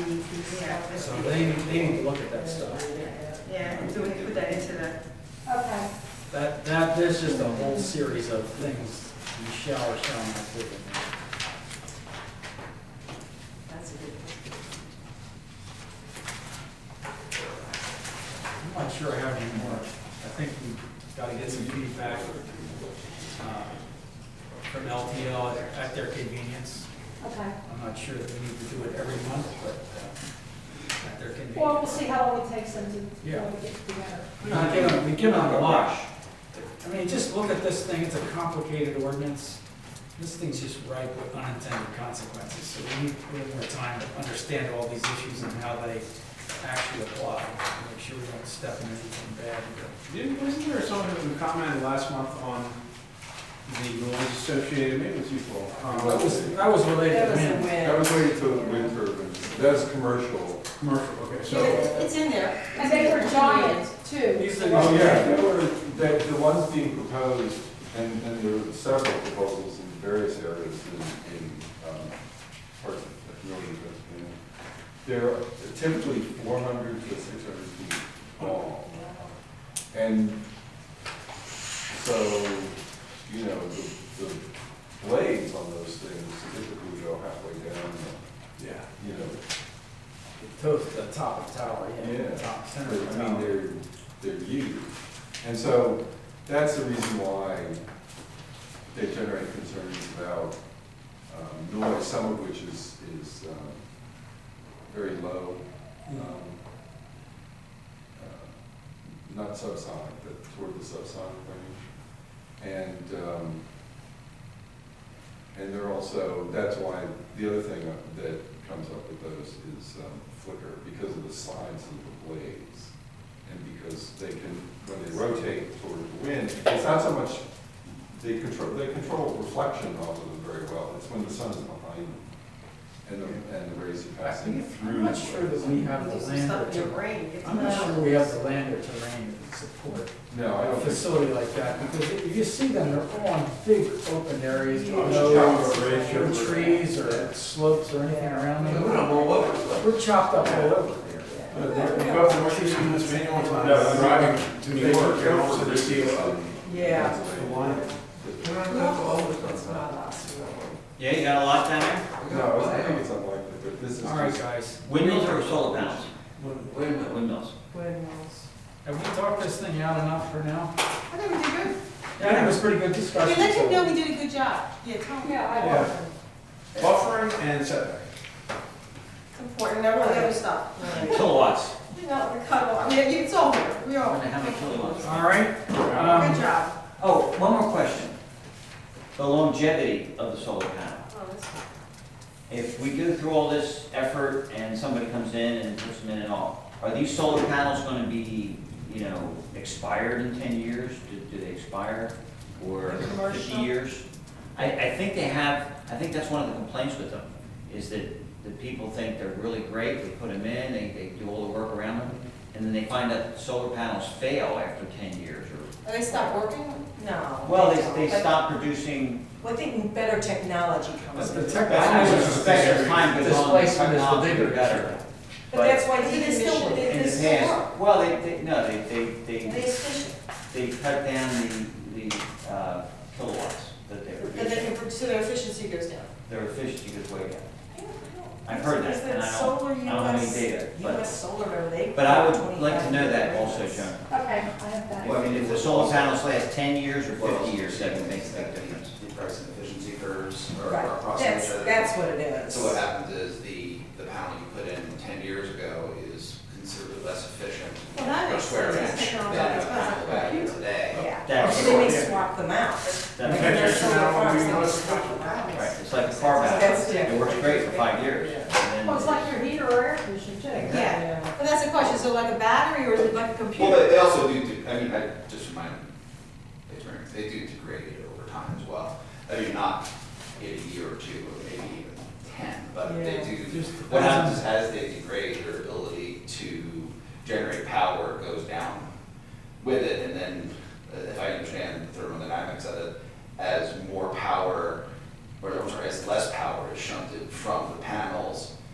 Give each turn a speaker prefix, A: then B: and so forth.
A: Yeah.
B: So they, need- they need to look at that stuff.
A: Yeah, so we can put that into the,
C: Okay,
B: That, that, there's just a whole series of things you shall or shall not do.
A: that's a good.
B: I'm not sure I have any more. I think we've got to get some feedback uh, from LTL at- at their convenience.
C: okay.
B: I'm not sure that we need to do it every month, but uh, at their
C: Well, we'll
B: convenience.
C: see how long it takes them to,
B: Yeah.
C: to get together.
B: We're not giving, we give them a wash. I mean, just look at this thing, it's a complicated ordinance. This thing's just ripe with unintended consequences, so we need a little more time to understand all these issues and how they actually apply. and Make sure we don't step in anything bad.
D: Didn't, wasn't there someone who commented last month on the noise associated, maybe it was you, Paul? um,
B: That was, that was related to wind.
E: That was waiting till the wind turbine, that's commercial.
D: Commercial, okay, so,
F: It's in there.
C: And they were giant too.
B: These things-
E: Oh, yeah, there were, the, the ones being proposed, and, and there were several proposals in various areas in, in, um, parts of northern Pennsylvania. They're typically four hundred to six hundred feet tall. And so, you know, the, the blades on those things typically go halfway down,
D: yeah.
E: the, you know,
B: To the top of the tower, yeah,
E: Yeah.
B: top center of the
E: I mean,
B: tower.
E: they're, they're huge. And so that's the reason why they generate concerns about um, noise, some of which is, is um, very low. um, uh, Not subsonic, but toward the subsonic range. And, um, and they're also, that's why, the other thing that comes up with those is um, flicker, because of the size of the blades. And because they can, when they rotate toward the wind, it's not so much, they control, they control reflection off of them very well. It's when the sun is behind them and the, and the rays are passing through.
B: I'm not sure that we have the
A: It's
B: land or
A: not your
B: terrain.
A: brain. It's
B: I'm not
A: not-
B: sure we have the land or terrain to support
E: No, I
B: a
E: don't think.
B: facility like that, because if you see them, they're all in big open areas,
E: I'm
B: no
E: just talking about ratio.
B: no trees or slopes or anything around them.
E: all over the
B: We're chopped up all over here.
D: But Uh, they're about to work this in this manual time.
E: No, I'm
D: Driving to New
E: They
D: York,
E: work
D: and
E: out
D: also
E: for
D: to see,
E: this.
D: uh,
A: Yeah.
D: the line.
G: Yeah, you got a lot down there?
E: No, I think it's unlikely, but this is
B: All right,
E: just,
B: guys,
G: Windmills or solar panels? Windmills.
A: Windmills.
B: have we talked this thing out enough for now?
F: I think we did good.
B: Yeah, I think it was pretty good
F: I
B: discussion.
F: mean, let
B: so-
F: him know we did a good job. Yeah, tell him.
C: Yeah, I
D: Yeah.
C: love them.
D: buffering and setback.
F: It's important, never let him stop.
G: Kilowatts.
F: You know, we're cut off. I mean, it's all here, we all.
G: Wonder how many kilowatts.
B: All right,
F: Good
B: um,
F: job.
G: Oh, one more question. The longevity of the solar panel.
F: Oh, that's-
G: If we go through all this effort and somebody comes in and puts them in and all, are these solar panels gonna be, you know, expired in ten years? Do, do they expire? Or fifty
F: Commercial?
G: years? I, I think they have, I think that's one of the complaints with them, is that the people think they're really great, they put them in, they, they do all the work around them, and then they find that solar panels fail after ten years or,
F: Are they stopped working? No.
G: well, they, they
F: don't.
G: stop producing
F: Well, I think better technology comes.
B: but
F: in.
B: the
G: I would
B: technology,
G: suspect as time goes on, the
B: displacement is the
G: technology
B: bigger
G: will
B: issue.
G: better.
F: But that's why
A: But they
F: they
A: still-
F: still,
G: In
F: they
G: the
F: still
G: past, well, they, they, no, they, they,
F: They
G: they,
F: efficient,
G: they cut down the, the uh, kilowatts that they
F: but they
G: produce.
F: can, so their efficiency goes down.
G: Their efficiency goes way down. I've heard that,
F: Is
G: and I don't,
F: solar
G: I don't have any
F: US
G: data, but,
F: US solar, remember, they.
G: but I would
F: 25
G: like to know that also, John.
C: Okay, I have that.
G: I mean, if the solar panels last ten years or fifty years, that would make a big difference.
H: The price and efficiency curves are are
F: Right,
H: across each
F: that's,
H: other.
F: that's what it is.
H: So what happens is the, the panel you put in ten years ago is considerably less efficient.
F: Well, that
H: per
F: makes
H: square
F: sense.
H: inch
F: It's technology.
H: Than
F: It's
H: a
F: not
H: panel
F: a
H: back in
F: computer.
H: today.
F: Yeah,
G: That's-
F: so they may swap them out.
D: Okay.
G: That makes
F: They're solar
D: now
F: farms,
D: we
F: they
D: must-
F: swap them out.
G: Right, it's like a car battery.
F: That's
G: It works great for five years. and then-
C: Well, it's like your heater or air conditioner too.
F: Yeah, but that's the question, so like a battery or is it like a computer?
H: Well, but they also do, de- I mean, I just from my experience, they do degrade it over time as well. I mean, not in a year or two, or maybe even ten, but they
A: Yeah.
H: do.
B: Just
H: What happens is as they degrade, their ability to generate power goes down with it. And then, uh, if I understand the thermodynamics of it, as more power, or I'm sorry, as less power is shunted from the panels